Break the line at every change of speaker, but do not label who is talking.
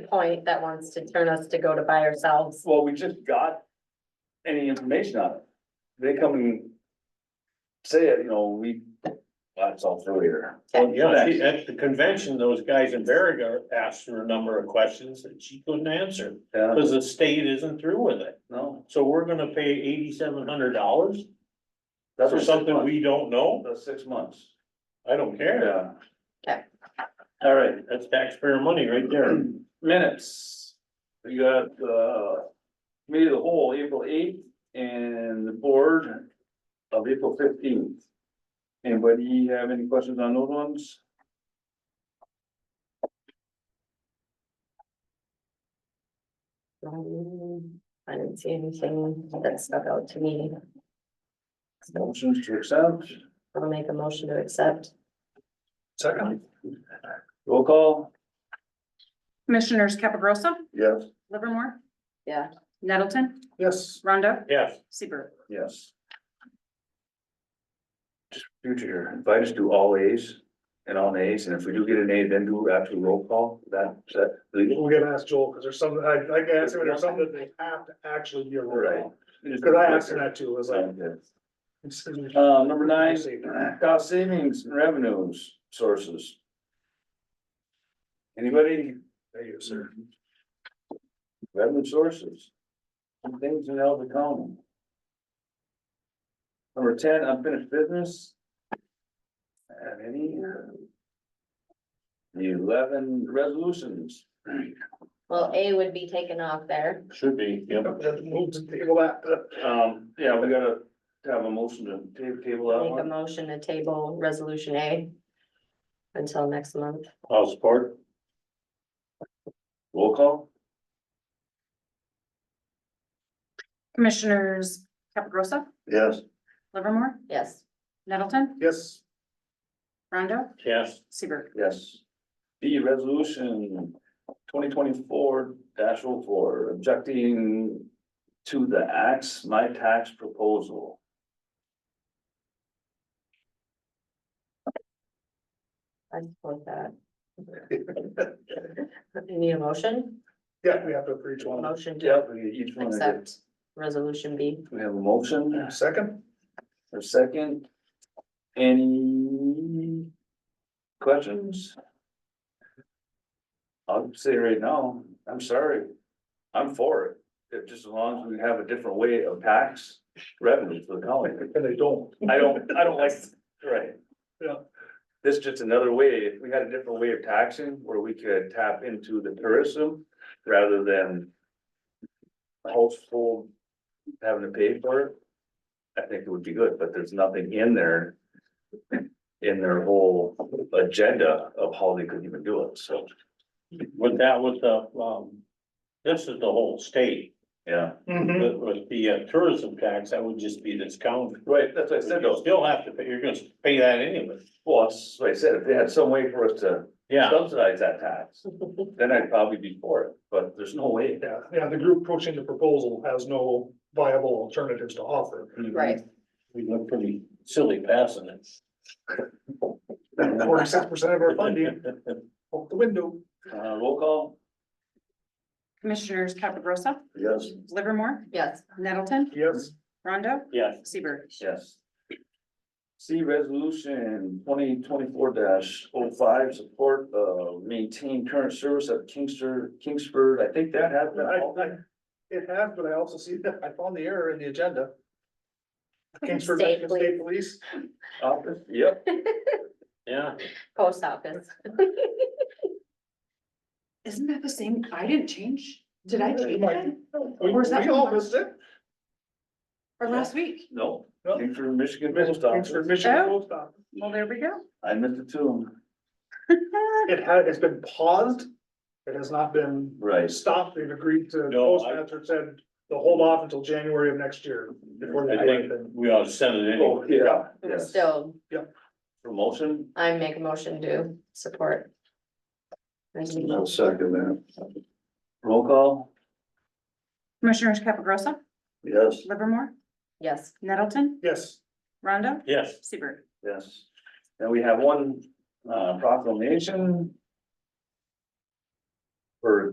point that wants to turn us to go to buy ourselves.
Well, we just got any information on it. They come and say it, you know, we, that's all through here.
Well, yeah, she- at the convention, those guys in Berriga asked her a number of questions that she couldn't answer,
Yeah,
because the state isn't through with it.
no.
So we're gonna pay eighty-seven hundred dollars
that's
for
six
something
months.
we don't know?
That's six months.
I don't care.
Yeah.
Okay.
All right, that's taxpayer money right there.
Minutes. We got, uh, committee of the whole, April eighth, and the board of April fifteenth. Anybody have any questions on those ones?
Um, I didn't see anything that stuck out to me. So
Motions to accept.
I'll make a motion to accept.
Second. Roll call.
Commissioners Capagrosa,
Yes.
Livermore,
Yeah,
Nettleton,
Yes.
Rondo,
Yes,
Seabird.
Yes. Just future here, if I just do all A's and all nays, and if we do get an A, then do actual roll call, that, is that legal?
We're gonna ask Joel, cause there's some, I, I can answer, there's some that they have to actually be a roll
Right.
call. Cause I asked him that too, it was like. it's-
Uh, number nine, cost savings and revenues sources. Anybody?
Thank you, sir.
Revenue sources. Some things in Elder County. Number ten, unfinished business. Have any? The eleven resolutions.
well, A would be taken off there.
should be, yep.
Move to table that.
Um, yeah, we gotta have a motion to ta- table that
Make a
one.
motion to table resolution A. Until next month.
I'll support.
Roll call?
Commissioners Capagrosa,
Yes.
Livermore,
Yes,
Nettleton,
Yes,
Rondo,
Yes,
Seabird.
Yes. B, resolution twenty twenty-four 4 objecting to the acts, my tax proposal.
I support that. Need a motion?
yeah, we have to for each one.
Motion to
Yep, we each one. of the-
accept resolution B.
We have a motion,
Second,
a second. Any questions? I'll say right now, I'm sorry, I'm for it, if just as long as we have a different way of tax revenue for the county.
and they don't.
I don't, I don't like, right.
Yeah.
This is just another way, if we had a different way of taxing where we could tap into the tourism rather than. Household having to pay for it. I think it would be good, but there's nothing in there. In their whole agenda of how they could even do it, so,
with that, with the, um, this is the whole state.
yeah.
Mhm.
With, with the uh, tourism tax, that would just be this county.
Right, that's what I said,
You
though.
still have to pay, you're gonna pay that anyway.
well, that's what I said, if they had some way for us to
Yeah,
subsidize that tax, then I'd probably be for it, but there's no way.
Yeah, yeah, the group approaching the proposal has no viable alternatives to offer.
Right,
we look pretty silly passing it.
Forty-six percent of our funding out the window.
Uh, roll call?
Commissioners Capagrosa,
Yes.
Livermore,
yes,
Nettleton,
Yes,
Rondo,
Yes,
Seabird.
Yes. See resolution twenty twenty-four 5 support, uh, maintain current service at Kingster, Kingsford, I think that
I, I,
happened.
it has, but I also see that I found the error in the agenda. Kingsford
State
Michigan State Police,
Office, yep,
yeah,
post office.
Isn't that the same? I didn't change. Did I
change
that?
that? we,
Where's that
we all
from?
missed it.
Or
last
week?
no,
No.
Kingsford, Michigan Post
Thanks for
Office,
Michigan
Oh.
Post Office.
Well, there we go.
I missed it too.
It had, it's been paused. It has not been
Right.
stopped. They've agreed to,
No, I-
Postmaster said they'll hold off until January of next year. before they
I
do
think
anything.
we ought to send it anyway.
Oh, yeah, yes,
Still,
promotion.
I make a motion to support.
second that. Roll call?
Commissioners Capagrosa,
Yes.
Livermore,
Yes,
Nettleton,
Yes,
Rondo,
Yes,
Seabird.
Yes, and we have one, uh, proclamation. For